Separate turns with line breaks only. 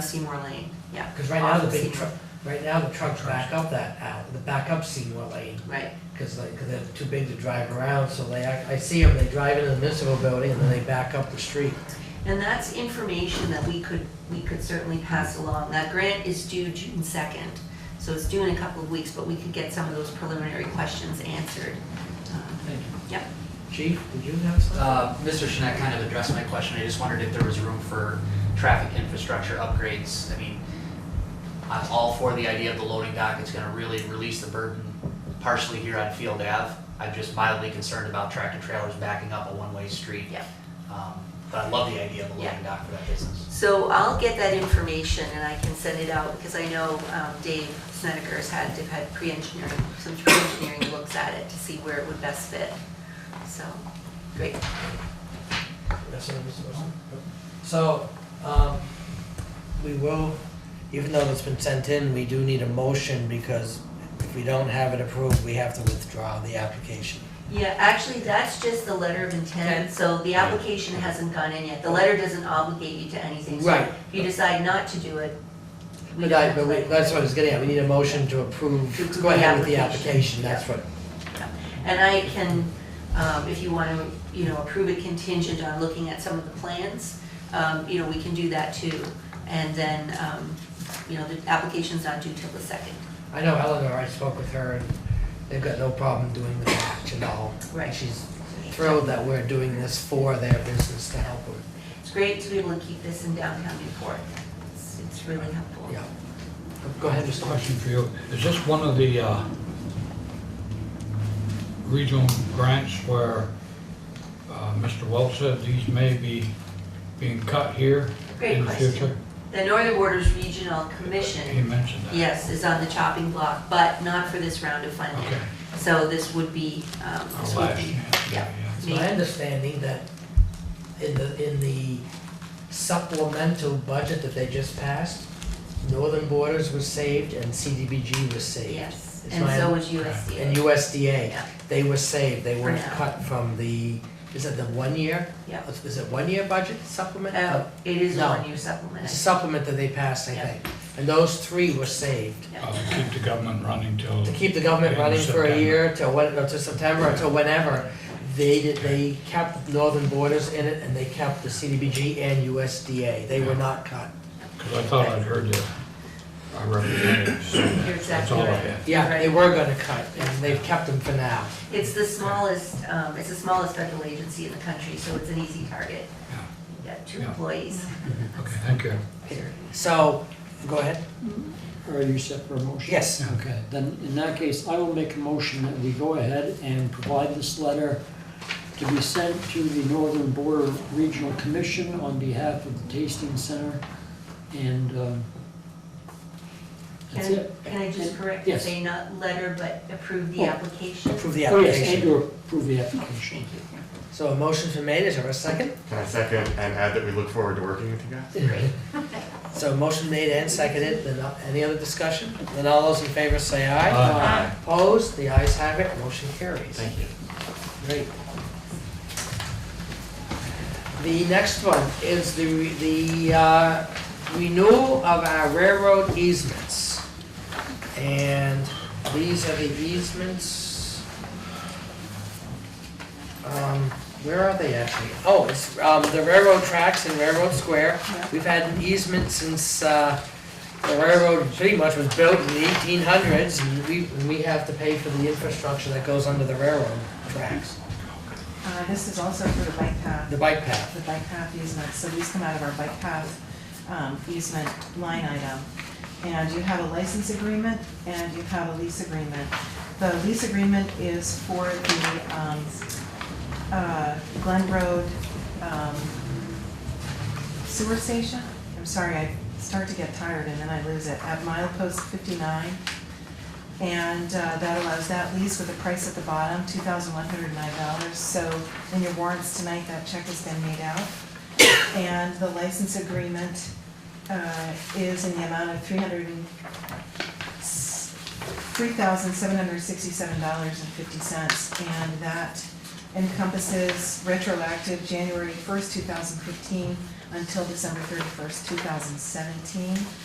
Seymour Lane, yeah.
Because right now, the
Off
big
Seymour,
truck, right now, the trucks back up that, al- the back up Seymour Lane,
Right,
because like, 'cause they're too big to drive around, so they, act- I see them, they drive into the municipal building, and then they back up the street.
and that's information that we could, we could certainly pass along. That grant is due June second, so it's due in a couple of weeks, but we could get some of those preliminary questions answered. Um,
Thank you.
Yep.
Chief, did you have something?
Uh, Mr. Shinet kind of addressed my question. I just wondered if there was room for traffic infrastructure upgrades. I mean, I'm all for the idea of the loading dock. It's gonna really release the burden partially here on Field Ave. I'm just mildly concerned about tractor trailers backing up a one-way street.
Yeah.
Um, But I love the idea of the loading dock for that business.
So I'll get that information and I can send it out, because I know um, Dave Snedeker has had, they've had pre-engineering, some pre-engineering looks at it to see where it would best fit. So, great.
That's what I was supposed to- So, um, we will, even though it's been sent in, we do need a motion, because if we don't have it approved, we have to withdraw the application.
Yeah, actually, that's just the letter of intent, so the application hasn't gone in yet. The letter doesn't obligate you to anything. so
Right.
If you decide not to do it. we
But
don't
I,
have to
but we,
let you
that's
know.
what I was getting at, we need a motion to approve,
To approve
go ahead with the
the
application,
application,
that's what,
And I can, um, if you want to, you know, approve it contingent on looking at some of the plans, um, you know, we can do that too. And then, um, you know, the application's not due till the second.
I know Eleanor, I spoke with her, and they've got no problem doing the match at all.
Right.
She's thrilled that we're doing this for their business to help them,
It's great to be able to keep this in downtown Newport. It's it's really helpful.
yeah. Go ahead,
Just
Mr.
a
Marsh.
question for you. Is this one of the uh, regional grants where uh, Mr. Welch said these may be being cut here
Great
in the
question.
future?
The Northern Borders Regional Commission.
He mentioned that.
Yes, is on the chopping block, but not for this round of funding.
Okay.
So this would be, um, this
Oh,
would
last
be,
year.
yeah.
It's my understanding that in the, in the supplemental budget that they just passed, Northern Borders was saved and CDBG was saved.
yes,
It's
and
my-
so is USDA.
And USDA,
Yeah.
they were saved, they
For
weren't
now.
cut from the, is it the one-year?
Yeah.
Is it one-year budget supplement?
Oh, it is a
No.
one-year
It's a
supplement.
Supplement that they passed, I
Yeah.
think. And those three were saved.
Uh, Keep the government running till,
To keep the government
Yeah,
running for a
September.
year till when, no, to September, or till whenever, they did, they kept Northern Borders in it, and they kept the CDBG and USDA. They were
Yeah.
not cut.
because I thought I'd heard that our representative said
You're
that. That's
exactly
all I
right.
had.
Yeah, they
Right.
were gonna cut, and they've kept them for now.
It's the smallest, um, it's the smallest federal agency in the country, so it's an easy target. You got two
Yeah.
employees.
Okay, thank you.
So, go ahead.
Are you set for a motion?
Yes.
Okay, then in that case, I will make a motion that we go ahead and provide this letter to be sent to the Northern Border Regional Commission on behalf of the Tasting Center, and, um, that's
Can
it.
can I just correct,
Yes.
say not letter, but approve the
Oh.
application?
Approve the
Oh, yes, and
application.
to approve the application.
Thank you.
So a motion's been made, is there a second?
Can I second and add that we look forward to working with you guys?
So motion made and seconded, then uh, any other discussion? Then all those in favor say aye.
Uh,
Aye.
Opposed, the ayes have it, motion carries.
Thank you.
Great. The next one is the, the uh, renewal of our railroad easements. And these are the easements. Um, Where are they actually? Oh, it's um, the railroad tracks in Railroad Square.
Yeah.
We've had an easement since uh, the railroad pretty much was built in the eighteen hundreds, and we, and we have to pay for the infrastructure that goes under the railroad tracks,
Uh, This is also for the bike path,
the bike path.
the bike path easement, so these come out of our bike path um, easement line item. And you have a license agreement and you have a lease agreement. The lease agreement is for the um, uh, Glen Road um, sewer station. I'm sorry, I start to get tired and then I lose it, at milepost 59. And uh, that allows that lease with a price at the bottom, two thousand one hundred nine dollars. So in your warrants tonight, that check has been made out. And the license agreement uh, is in the amount of three hundred and, three thousand seven hundred sixty-seven dollars and fifty cents. And that encompasses retroactive January first, two thousand fifteen until December thirty-first, two thousand seventeen.